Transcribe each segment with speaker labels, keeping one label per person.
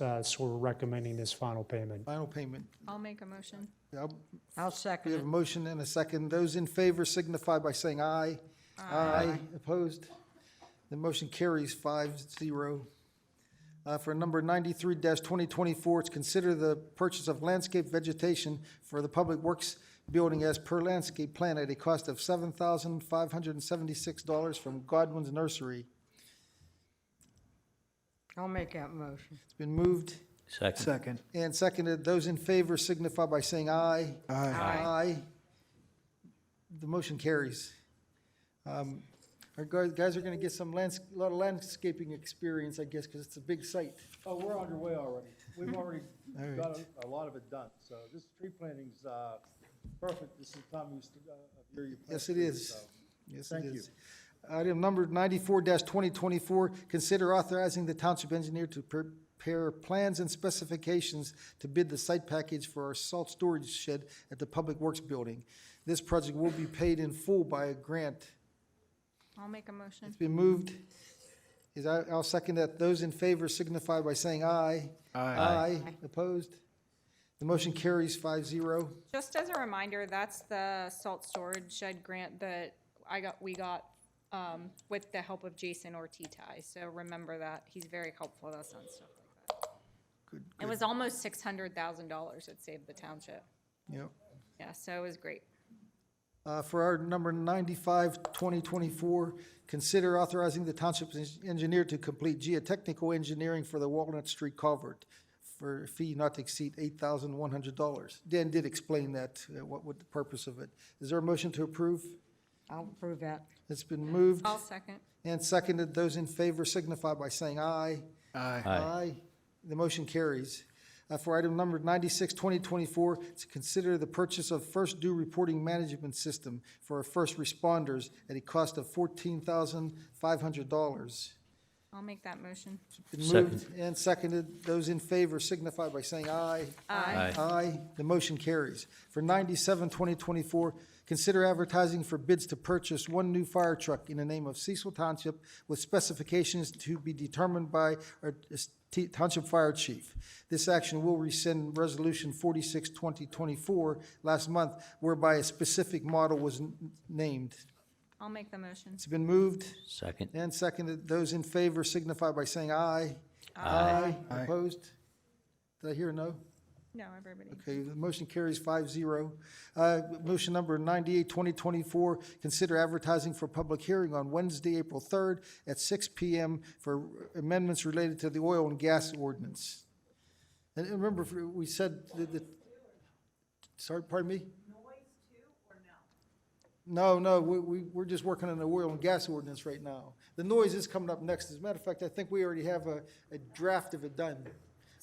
Speaker 1: uh, so we're recommending this final payment.
Speaker 2: Final payment.
Speaker 3: I'll make a motion.
Speaker 2: I'll-
Speaker 4: I'll
Speaker 2: We
Speaker 4: second
Speaker 2: have a
Speaker 4: it.
Speaker 2: motion and a second. Those in favor signify by saying aye. Aye. Opposed? The motion carries five zero. Uh, For number ninety-three twenty twenty-four, it's consider the purchase of landscape vegetation for the Public Works Building as per landscape plan at a cost of seven thousand five hundred and seventy-six dollars from Godwin's Nursery.
Speaker 4: I'll make that motion.
Speaker 2: It's been moved
Speaker 5: Second.
Speaker 6: Second.
Speaker 2: and seconded. Those in favor signify by saying aye.
Speaker 6: Aye.
Speaker 2: Aye. The motion carries. Um, Our guys guys are going to get some lands, a lot of landscaping experience, I guess, because it's a big site.
Speaker 7: Oh, we're underway already. We've already
Speaker 2: Hmm. All right.
Speaker 7: got a- a lot of it done, so this tree planting's uh, perfect. This is the time you st- uh, of year you plant
Speaker 2: Yes, it
Speaker 7: trees,
Speaker 2: is.
Speaker 7: so.
Speaker 2: Yes, it
Speaker 7: Thank you.
Speaker 2: is. Item number ninety-four twenty twenty-four, consider authorizing the township engineer to prepare plans and specifications to bid the site package for our salt storage shed at the Public Works Building. This project will be paid in full by a grant.
Speaker 3: I'll make a motion.
Speaker 2: It's been moved. Is, I- I'll second that. Those in favor signify by saying aye. Aye. Opposed? The motion carries five zero.
Speaker 3: Just as a reminder, that's the salt storage shed grant that I got, we got um, with the help of Jason Ortizai. So remember that. He's very helpful with us on stuff like
Speaker 2: Good,
Speaker 3: that. It was almost $600,000 it saved the township.
Speaker 2: Yep.
Speaker 3: Yeah, so it was great.
Speaker 2: Uh, For our number 95, 2024, consider authorizing the township en- engineer to complete geotechnical engineering for the Walnut Street culvert for a fee not to exceed $8,100. Dan did explain that, uh, what, what the purpose of it. Is there a motion to approve?
Speaker 4: I'll approve that.
Speaker 2: It's been moved
Speaker 3: I'll second.
Speaker 2: and seconded. Those in favor signify by saying aye.
Speaker 6: Aye.
Speaker 2: Aye. The motion carries. Uh, For item number 96, 2024, to consider the purchase of first due reporting management system for our first responders at a cost of $14,500.
Speaker 3: I'll make that motion.
Speaker 2: Been moved and seconded. Those in favor signify by saying aye.
Speaker 5: Aye.
Speaker 2: Aye. The motion carries. For 97, 2024, consider advertising for bids to purchase one new fire truck in the name of Cecil Township with specifications to be determined by our t- Township Fire Chief. This action will rescind Resolution 46, 2024, last month, whereby a specific model was n- named.
Speaker 3: I'll make the motion.
Speaker 2: It's been moved
Speaker 5: Second.
Speaker 2: and seconded. Those in favor signify by saying aye.
Speaker 5: Aye.
Speaker 6: Aye.
Speaker 2: Opposed? Did I hear a no?
Speaker 3: No, everybody.
Speaker 2: Okay, the motion carries five zero. Uh, motion number ninety-eight, twenty twenty-four, consider advertising for public hearing on Wednesday, April third at six P M for amendments related to the oil and gas ordinance. And and remember, if we said that, the sorry, pardon me? Noise too, or no? No, no, we, we, we're just working on the oil and gas ordinance right now. The noise is coming up next. As a matter of fact, I think we already have a, a draft of it done.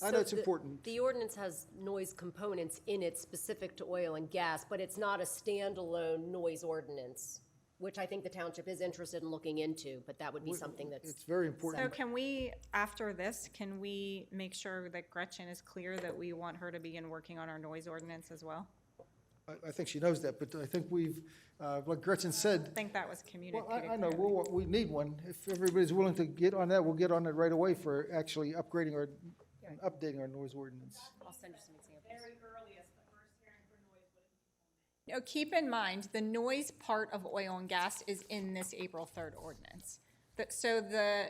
Speaker 2: I know
Speaker 8: So
Speaker 2: it's
Speaker 8: the-
Speaker 2: important.
Speaker 8: The ordinance has noise components in it specific to oil and gas, but it's not a standalone noise ordinance, which I think the township is interested in looking into, but that would be something that's.
Speaker 2: It's very important.
Speaker 3: So can we, after this, can we make sure that Gretchen is clear that we want her to begin working on our noise ordinance as well?
Speaker 2: I, I think she knows that, but I think we've, uh, like Gretchen said,
Speaker 3: I think that was
Speaker 2: well,
Speaker 3: communicated.
Speaker 2: I, I know,
Speaker 3: clearly.
Speaker 2: we'll, we need one. If everybody's willing to get on that, we'll get on it right away for actually upgrading our, and updating our noise ordinance.
Speaker 8: I'll send you some examples.
Speaker 3: Now, keep in mind, the noise part of oil and gas is in this April 3rd ordinance. That- So the,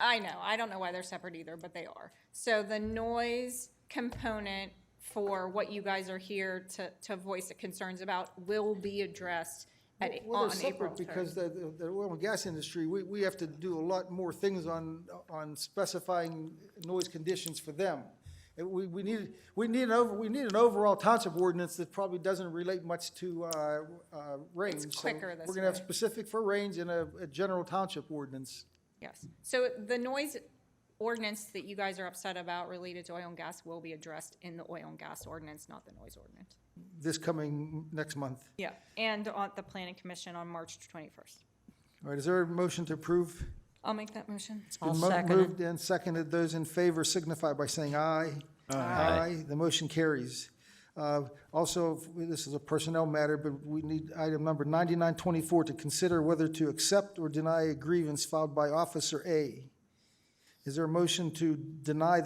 Speaker 3: I know, I don't know why they're separate either, but they are. So the noise component for what you guys are here to, to voice the concerns about will be addressed at, on April
Speaker 2: Well, they're separate
Speaker 3: 3rd.
Speaker 2: because the, the- the oil and gas industry, we, we have to do a lot more things on, on specifying noise conditions for them. And we, we need, we need an over, we need an overall township ordinance that probably doesn't relate much to, uh, uh, range. So
Speaker 3: quicker this
Speaker 2: We're gonna have
Speaker 3: way.
Speaker 2: specific for range and a, a general township ordinance.
Speaker 3: Yes. So the noise ordinance that you guys are upset about related to oil and gas will be addressed in the oil and gas ordinance, not the noise ordinance.
Speaker 2: this coming next month.
Speaker 3: Yeah, and on the planning commission on March 21st.
Speaker 2: All right, is there a motion to approve?
Speaker 3: I'll make that motion.
Speaker 2: It's been
Speaker 4: I'll
Speaker 2: mo-
Speaker 4: second it.
Speaker 2: Moved and seconded. Those in favor signify by saying aye. Aye. The motion carries. Uh, Also, this is a personnel matter, but we need item number 9924 to consider whether to accept or deny a grievance filed by Officer A. Is there a motion to deny